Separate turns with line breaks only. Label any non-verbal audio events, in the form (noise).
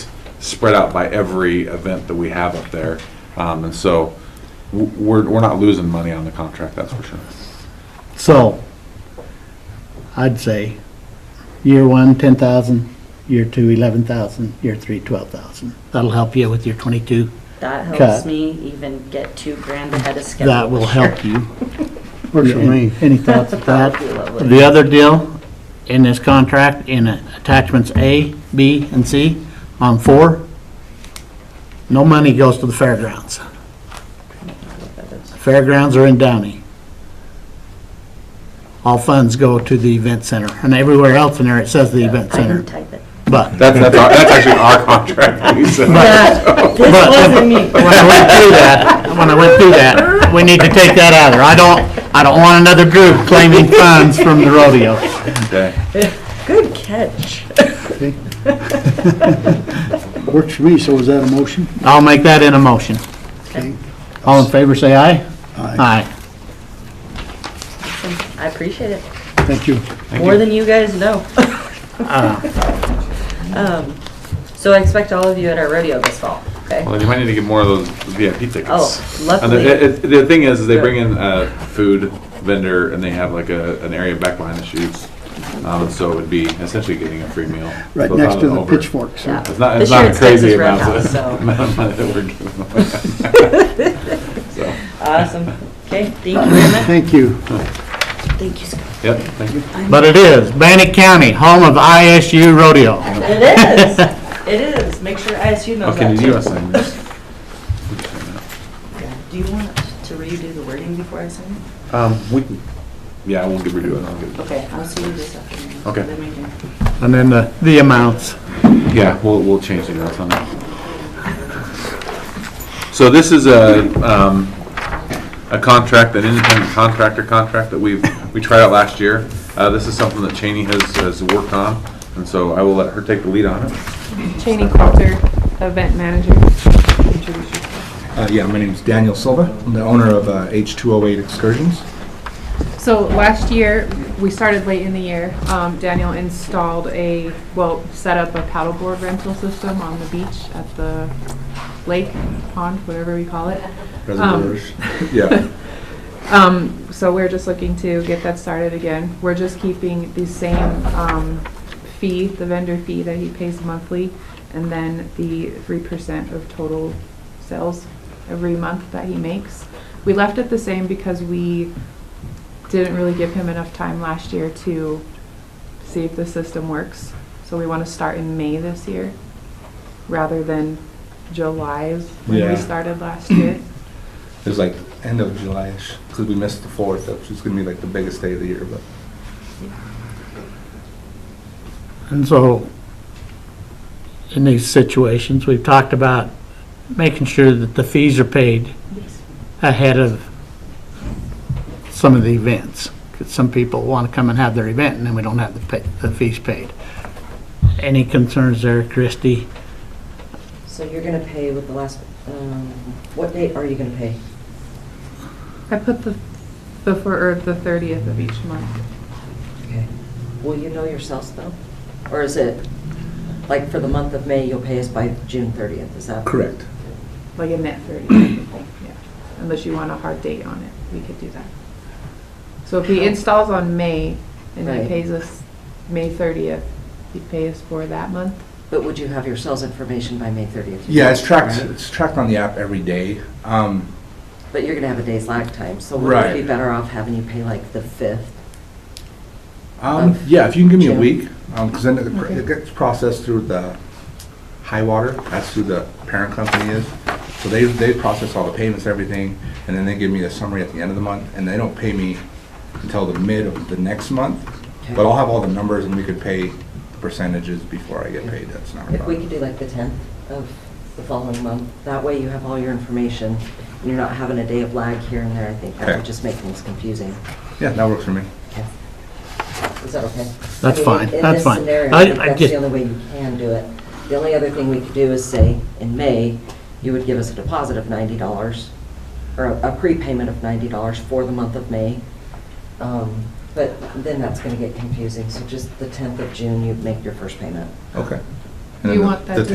spread out by every event that we have up there. Um, and so w- we're, we're not losing money on the contract, that's for sure.
So, I'd say, year one, ten thousand, year two, eleven thousand, year three, twelve thousand. That'll help you with your twenty-two.
That
Cut.
helps me even get two grand ahead of schedule.
That will
this year.
help you.
Works for me.
Any thoughts of that?
That would be lovely.
The other deal in this contract, in attachments A, B, and C, on four, no money goes to the fairgrounds. Fairgrounds are in Downey. All funds go to the event center, and everywhere else in there, it says the event
I
center,
didn't type it.
but.
That's, that's, our- that's actually our (laughs) contract.
(laughs)
we said.
This
But-
wasn't me.
When I went through that, when I went through that, we need to take that out of there. I don't, I don't want another group claiming funds from the rodeo.
Okay.
Good catch.
Okay. Works for me, so is that a motion?
I'll make that in a motion.
Okay.
All in favor, say aye.
Aye.
Aye.
I appreciate it.
Thank you.
More than you guys know. Um, So I expect all of you at our rodeo this fall, okay?
Well, then you might need to get more of those VIP tickets.
Oh,
And
luckily.
the, it- it- the thing is, is they bring in a food vendor and they have like a, an area back behind the shoots. Um, and so it would be essentially getting a free meal.
Right
So it's
next
not
to
an
the
over-
pitchforks.
Yeah.
It's not,
This
it's
year
not a
it's
crazy
Texas
amount
Roadhouse,
of, (laughs)
so.
amount of money that we're giving away.
(laughs)
So,
Awesome. Okay, thank you very
(laughs)
much.
Thank you.
Thank you, Scott.
Yep, thank you.
But it is Bannock County, home of ISU rodeo.
It is. It is. Make sure ISU knows
Okay,
that
did Oh, you
too.
want to sign this?
Do you want to redo the wording before I sign it?
Um, we can, yeah, I won't give her to it. I'll give it.
Okay, I'll see you this afternoon.
Okay.
Then we can-
And then the, the amounts.
Yeah, we'll, we'll change the notes on that. So this is a, um, a contract, an independent contractor contract that we've, we tried out last year. Uh, this is something that Cheney has, has worked on, and so I will let her take the lead on it.
Cheney Coulter, event manager. Introduce yourself.
Uh, Yeah, my name's Daniel Silva. I'm the owner of uh, H208 Excursions.
So last year, we started late in the year. Um, Daniel installed a, well, set up a paddleboard rental system on the beach at the lake, pond, whatever we call it.
Reservoirs. Yeah.
(laughs) Um, so we're just looking to get that started again. We're just keeping the same, um, fee, the vendor fee that he pays monthly, and then the three percent of total sales every month that he makes. We left it the same because we didn't really give him enough time last year to see if the system works. So we want to start in May this year, rather than July's when
Yeah.
we started last year.
It was like end of July-ish, because we missed the 4th, which is going to be like the biggest day of the year, but
And so, in these situations, we've talked about making sure that the fees are paid ahead of some of the events. Because some people want to come and have their event, and then we don't have the pay, the fees paid. Any concerns there, Christie?
So you're gonna pay with the last, um, what date are you gonna pay?
I put the, the, fir- or the thirtieth of each month.
Okay. Will you know your sales though? Or is it, like, for the month of May, you'll pay us by June thirtieth, is that?
correct.
like a net thirty, I think, yeah. Unless you want a hard date on it, we could do that. So if he installs on May and he
Right.
pays us May thirtieth, he pays us for that month.
But would you have your sales information by May thirtieth?
Yeah, it's tracked, it's tracked on the app every day. Um,
But you're gonna have a day's lag time, so wouldn't it be
Right.
better off having you pay like the fifth?
um,
Of
Yeah, if you can give me a
June.
week, because then it
Okay.
it gets processed through the high water, that's who the parent company is. So they, they process all the payments, everything, and then they give me a summary at the end of the month, and they don't pay me until the mid of the next month. But I'll have all the numbers and we could pay percentages before I get paid, that's not a
If we could
problem.
do like the tenth of the following month, that way you have all your information, and you're not having a day of lag here and there, I think that
Okay.
would just make things confusing.
Yeah, that works for me.
Okay. Is that okay?
That's
I mean,
fine. That's fine.
In this scenario,
I-
I think
I
that's
just-
the only way you can do it. The only other thing we could do is say, in May, you would give us a deposit of ninety dollars, or a a prepayment of ninety dollars for the month of May. Um, But then that's gonna get confusing, so just the tenth of June, you make your first payment.
Okay. And
Do
then
you
the-
want that
the
to